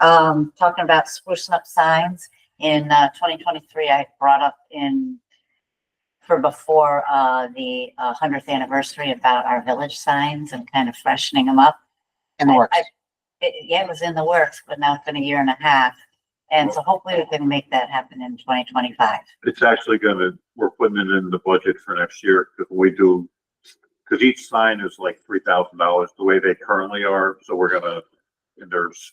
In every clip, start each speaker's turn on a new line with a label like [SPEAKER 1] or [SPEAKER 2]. [SPEAKER 1] um, talking about sprucing up signs in, uh, twenty twenty-three, I brought up in for before, uh, the hundredth anniversary about our village signs and kind of freshening them up.
[SPEAKER 2] in the
[SPEAKER 1] I-
[SPEAKER 2] works.
[SPEAKER 1] I- It, yeah, it was in the works, but now it's been a year and a half. And so hopefully we can make that happen in twenty twenty-five.
[SPEAKER 3] It's actually gonna, we're putting it in the budget for next year, because we do, because each sign is like three thousand dollars, the way they currently are, so we're gonna, and there's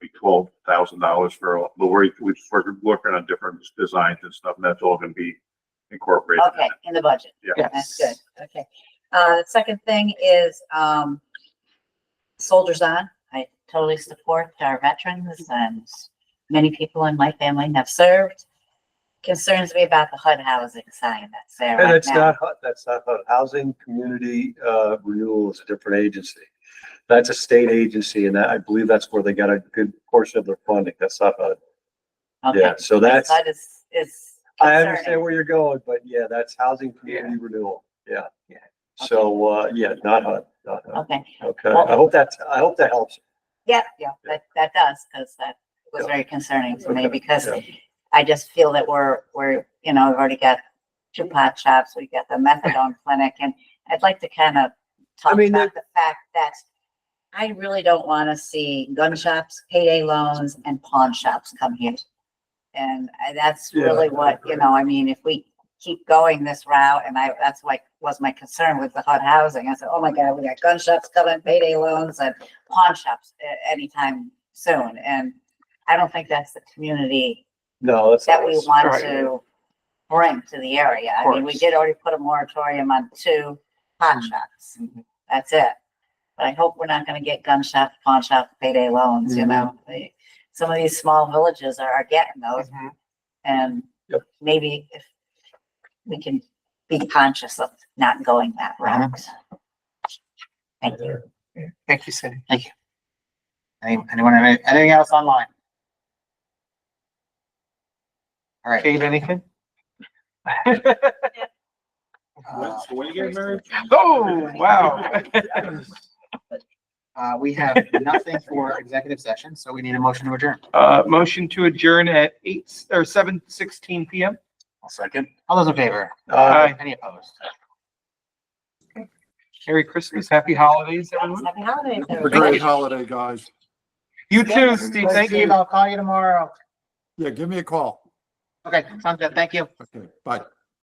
[SPEAKER 3] be twelve thousand dollars for, all- but we're, we're just working- working on different designs and stuff, and that's all gonna be incorporated. in
[SPEAKER 1] Okay, in the budget.
[SPEAKER 3] Yeah.
[SPEAKER 1] That's good. Okay. Uh, the second thing is, um, Soldiers On. I totally support our veterans and many people in my family have served. Concerns me about the HUD housing sign that's there
[SPEAKER 4] And
[SPEAKER 1] right
[SPEAKER 4] it's
[SPEAKER 1] now.
[SPEAKER 4] not, HUD, that's not HUD. Housing Community uh, Renewal is a different agency. That's a state agency and that, I believe that's where they got a good portion of their funding. That's not HUD.
[SPEAKER 1] Okay.
[SPEAKER 4] Yeah, so that's,
[SPEAKER 1] HUD is, is
[SPEAKER 4] I understand
[SPEAKER 1] concerning.
[SPEAKER 4] where you're going, but yeah, that's Housing Community Renewal. Yeah. So, uh, yeah, not HUD, not HUD.
[SPEAKER 1] Okay.
[SPEAKER 4] Okay, I hope that's, I hope that helps.
[SPEAKER 1] Yeah, yeah, that, that does, because that was very concerning to me
[SPEAKER 4] Okay,
[SPEAKER 1] because
[SPEAKER 4] yeah.
[SPEAKER 1] I just feel that we're, we're, you know, we've already got two pot shops, we've got the methadone clinic, and I'd like to kind of talk
[SPEAKER 4] mean,
[SPEAKER 1] about the fact that I really don't want to see gun shops, payday loans, and pawn shops come here. And I- that's
[SPEAKER 4] Yeah,
[SPEAKER 1] really
[SPEAKER 4] I
[SPEAKER 1] what, you
[SPEAKER 4] agree.
[SPEAKER 1] know, I mean, if we keep going this route, and I, that's like, was my concern with the HUD housing. I said, oh my God, we got gun shops coming, payday loans, and pawn shops a- anytime soon. And I don't think that's the community
[SPEAKER 4] No, that's.
[SPEAKER 1] that we
[SPEAKER 4] nice.
[SPEAKER 1] want
[SPEAKER 2] Right.
[SPEAKER 1] to bring to the area. I mean, we
[SPEAKER 2] course.
[SPEAKER 1] did already put a moratorium on two pawn shops. That's it. But I hope we're not gonna get gun shop, pawn shop, payday loans, you
[SPEAKER 4] Mhm.
[SPEAKER 1] know? They- Some of these small villages are, are getting those and
[SPEAKER 4] Yep.
[SPEAKER 1] maybe if we can be conscious of not going that route. Thank you.
[SPEAKER 2] Thank you, Cindy. Thank you. Any- Anyone, have any- anything else online? All right.
[SPEAKER 5] Kate, anything?
[SPEAKER 2] uh,
[SPEAKER 3] When you get married?
[SPEAKER 5] Oh, wow.
[SPEAKER 2] Uh, we have nothing for executive session, so we need a motion to adjourn.
[SPEAKER 5] Uh, motion to adjourn at eight, or seven sixteen PM.
[SPEAKER 2] Second. All those in favor?
[SPEAKER 4] Uh,
[SPEAKER 5] Aye.
[SPEAKER 2] Any opposed?
[SPEAKER 5] Merry Christmas, happy holidays, everyone.
[SPEAKER 1] Happy holidays,
[SPEAKER 6] Have a
[SPEAKER 1] everybody.
[SPEAKER 6] great holiday, guys.
[SPEAKER 5] You too, Steve, thank you.
[SPEAKER 2] I'll call you tomorrow.
[SPEAKER 6] Yeah, give me a call.
[SPEAKER 2] Okay, sounds good. Thank you.
[SPEAKER 6] Okay, bye.